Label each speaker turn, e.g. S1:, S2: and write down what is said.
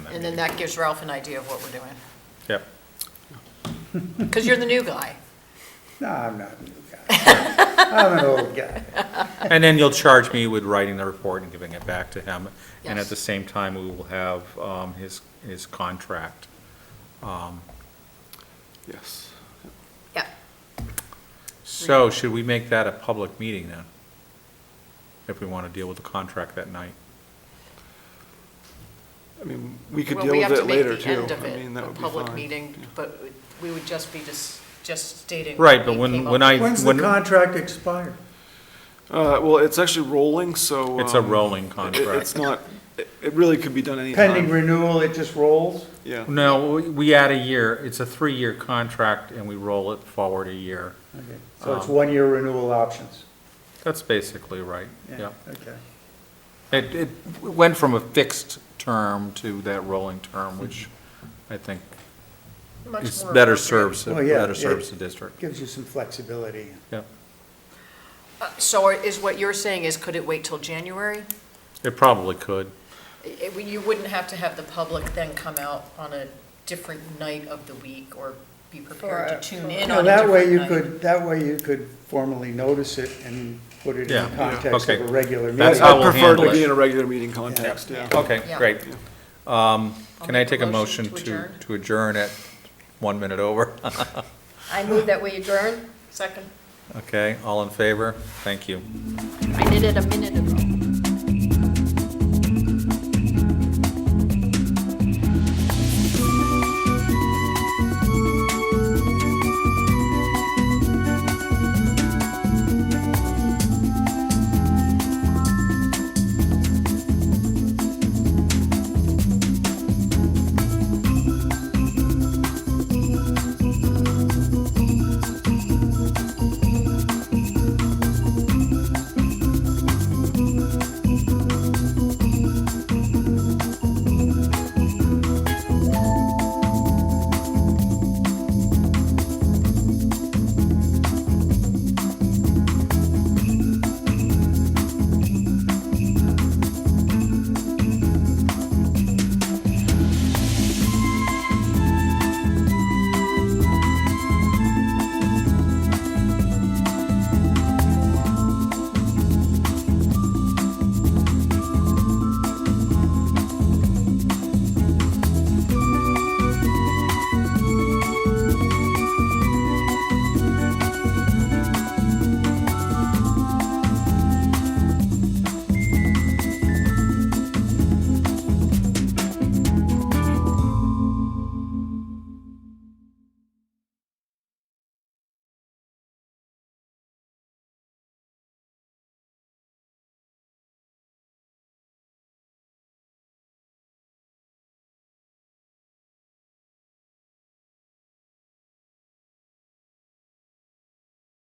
S1: And then that gives Ralph an idea of what we're doing.
S2: Yep.
S1: Because you're the new guy.
S3: No, I'm not a new guy. I'm an old guy.
S2: And then you'll charge me with writing the report and giving it back to him. And
S1: Yes.
S2: at the same time, we will have um, his, his contract.
S4: Yes.
S1: Yeah.
S2: So should we make that a public meeting then? If we want to deal with the contract that night?
S4: I mean, we could
S1: Well,
S4: deal
S1: we
S4: with
S1: have to
S4: it
S1: make
S4: later
S1: the
S4: too.
S1: end of
S4: I mean,
S1: it
S4: that
S1: a
S4: would be
S1: public
S4: fine.
S1: meeting, but we would just be just, just stating.
S2: Right,
S1: what
S2: but
S1: we
S2: when-
S1: came up
S2: when
S1: with.
S2: I-
S3: When's the
S2: When-
S3: contract expire?
S4: Uh, well, it's actually rolling, so.
S2: It's a
S4: um,
S2: rolling
S4: it- It's
S2: contract.
S4: not, it it really could be done
S3: Pending
S4: anytime.
S3: renewal, it just rolls?
S4: Yeah.
S2: No, we- we add a year. It's a three-year contract and we roll it forward a year.
S3: Okay, So it's one-year renewal options?
S2: That's basically right, yeah.
S3: Okay.
S2: It, it went from a fixed term to that rolling term, which I think
S1: Much
S2: is
S1: more
S2: better
S1: appropriate.
S2: serves,
S3: Well, yeah,
S2: better
S3: it-
S2: serves the district.
S3: Gives you some flexibility.
S2: Yep.
S1: Uh, So is what you're saying is could it wait till January?
S2: It probably could.
S1: I- I- You wouldn't have to have the public then come out on a different night of the week or be prepared
S5: For a-
S1: to tune
S5: for-
S1: in
S3: Now,
S1: on a different night.
S3: that way you could, that way you could formally notice it and put it
S2: Yeah,
S3: in the
S2: yeah,
S3: context of
S2: okay.
S3: a regular
S2: That's
S3: meeting.
S2: how
S4: I
S2: we'll
S4: prefer
S2: handle
S4: to be
S2: it.
S4: in a regular meeting context, yeah.
S2: Okay,
S1: Yeah.
S2: great. Um,
S1: I'll
S2: Can I
S1: make a
S2: take a
S1: motion
S2: motion
S1: to
S2: to,
S1: adjourn.
S2: to adjourn at one minute over?
S5: I move that we adjourn.
S1: Second.
S2: Okay, all in favor? Thank you.
S5: I did it a minute ago.